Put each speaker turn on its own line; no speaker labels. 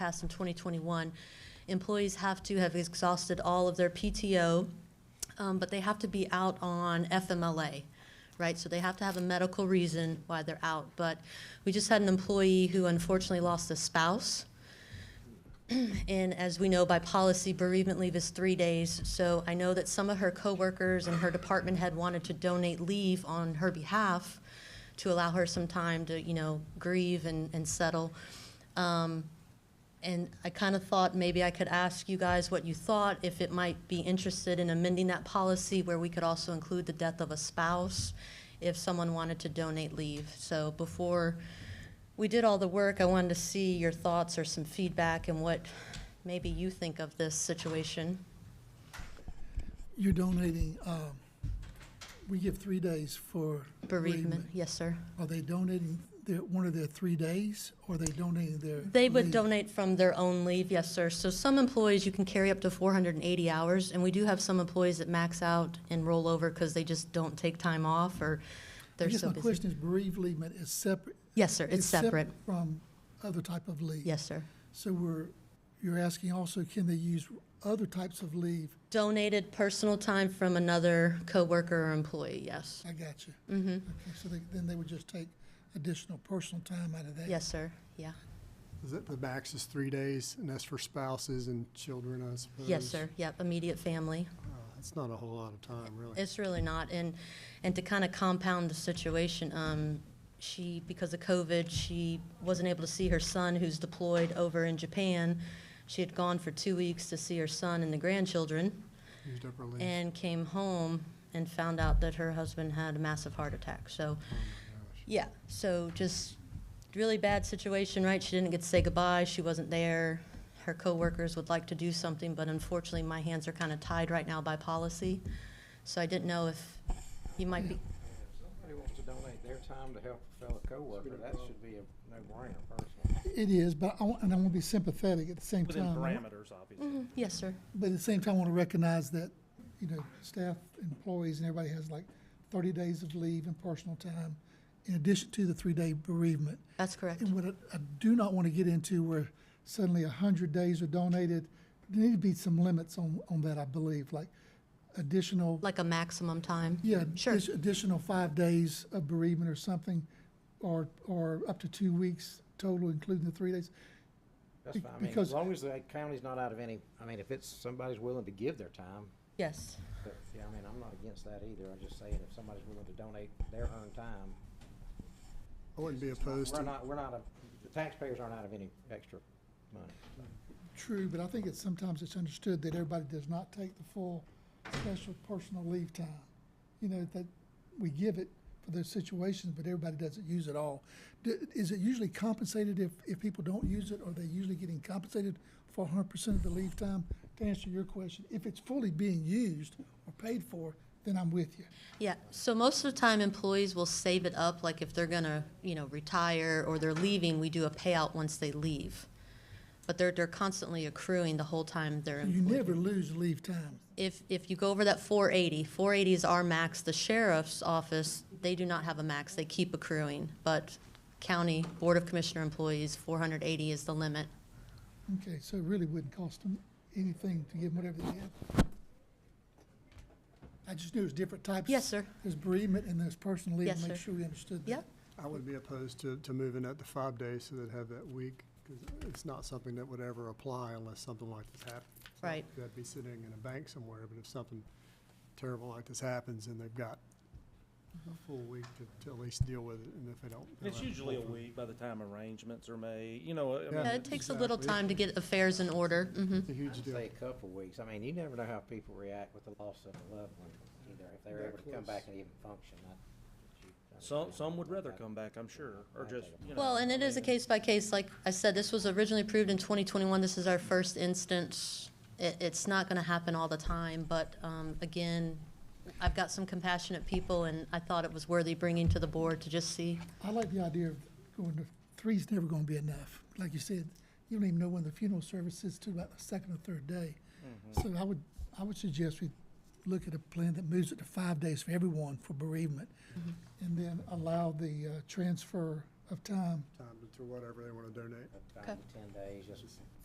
passed in 2021, employees have to have exhausted all of their PTO, um, but they have to be out on FMLA, right? So they have to have a medical reason why they're out. But we just had an employee who unfortunately lost a spouse. And as we know by policy, bereavement leave is three days. So I know that some of her coworkers and her department had wanted to donate leave on her behalf to allow her some time to, you know, grieve and, and settle. Um, and I kind of thought maybe I could ask you guys what you thought, if it might be interested in amending that policy where we could also include the death of a spouse if someone wanted to donate leave. So before we did all the work, I wanted to see your thoughts or some feedback and what maybe you think of this situation.
You're donating, um, we give three days for
Bereavement, yes, sir.
Are they donating their, one of their three days, or are they donating their?
They would
leave?
donate from their own leave, yes, sir. So some employees, you can carry up to 480 hours, and we do have some employees that max out and roll over because they just don't take time off or
I
they're
guess
so
my
busy.
question is bereavement is separate.
Yes, sir, it's
is sep-
separate.
From other type of leave?
Yes, sir.
So we're, you're asking also, can they use other types of leave?
Donated personal time from another coworker or employee, yes.
I got you. Mm-hmm. Okay, so they, then they would just take additional personal time out of that?
Yes, sir, yeah.
The, the max is three days, and that's for spouses and children, I suppose.
Yes, sir, yep, immediate family.
Uh, It's not a whole lot of time, really.
It's really not, and, and to kind of compound the situation, um, she, because of COVID, she wasn't able to see her son who's deployed over in Japan. She had gone for two weeks to see her son and the grandchildren
Used up our leave.
and came home and found out that her husband had a massive heart attack, so.
Oh, my gosh.
Yeah, so just really bad situation, right? She didn't get to say goodbye, she wasn't there. Her coworkers would like to do something, but unfortunately, my hands are kind of tied right now by policy. So I didn't know if you might be,
Somebody wants to donate their time to help a fellow coworker, that should be a no-brainer personally.
It is, but I, wa- and I want to be sympathetic at the same
Within
time.
parameters,
Mm-hmm.
obviously.
yes, sir.
But at the same time, I want to recognize that, you know, staff, employees, and everybody has like thirty days of leave and personal time in addition to the three-day bereavement.
That's correct.
And what I, I do not want to get into where suddenly hundred days are donated, there need to be some limits on, on that, I believe, like additional,
Like a maximum time?
yeah,
Sure,
addi- additional five days of bereavement or something, or, or up to two weeks total, including the three days.
That's fine, I mean,
Because-
as long as the county's not out of any, I mean, if it's, somebody's willing to give their time,
yes.
but, yeah, I mean, I'm not against that either, I'm just saying if somebody's willing to donate their earned time.
I wouldn't be opposed
We're
to,
not, we're not, a- the taxpayers aren't out of any extra money.
True, but I think it's sometimes it's understood that everybody does not take the full special personal leave time. You know, that we give it for those situations, but everybody doesn't use it all. D- Is it usually compensated if, if people don't use it? Are they usually getting compensated for hundred percent of the leave time? To answer your question, if it's fully being used or paid for, then I'm with you.
Yeah, so most of the time employees will save it up, like if they're gonna, you know, retire or they're leaving, we do a payout once they leave. But they're, they're constantly accruing the whole time they're
You
employed.
never lose leave time.
If, if you go over that 480, 480 is our max, the sheriff's office, they do not have a max, they keep accruing. But county Board of Commissioner employees, 480 is the limit.
Okay, so it really wouldn't cost them anything to give them whatever they have. I just knew it was different types.
Yes, sir.
There's bereavement and there's personal leave.
Yes,
Make
sir.
sure we understood that.
Yep,
I would be opposed to, to moving that to five days so they'd have that week, because it's not something that would ever apply unless something like this happens.
Right.
They'd be sitting in a bank somewhere, but if something terrible like this happens, then they've got
Mm-hmm.
a full week to, to at least deal with it, and if they don't. they'll
It's
have to
usually a
pull from-
week by the time arrangements are made, you know. I mean,
Yeah.
Yeah, it takes a little
Exactly.
time to get affairs in order, hmm
It's a huge
I'd
deal.
say a couple weeks, I mean, you never know how people react with the loss of a loved one either, if they're
That
able to come
close.
back and even function, I.
Some, some would rather come back, I'm sure, or just, you know.
Well, and it
I
is a
mean,
case by case, like I said, this was originally approved in 2021, this is our first instance. It, it's not gonna happen all the time, but, um, again, I've got some compassionate people, and I thought it was worthy bringing to the board to just see.
I like the idea of going to, three's never gonna be enough. Like you said, you don't even know when the funeral service is to about the second or third day. So I would, I would suggest we look at a plan that moves it
Mm-hmm.
to five days for everyone for bereavement. And then allow the, uh, transfer of time
time to, to whatever they want to donate.
Up to Ten days, just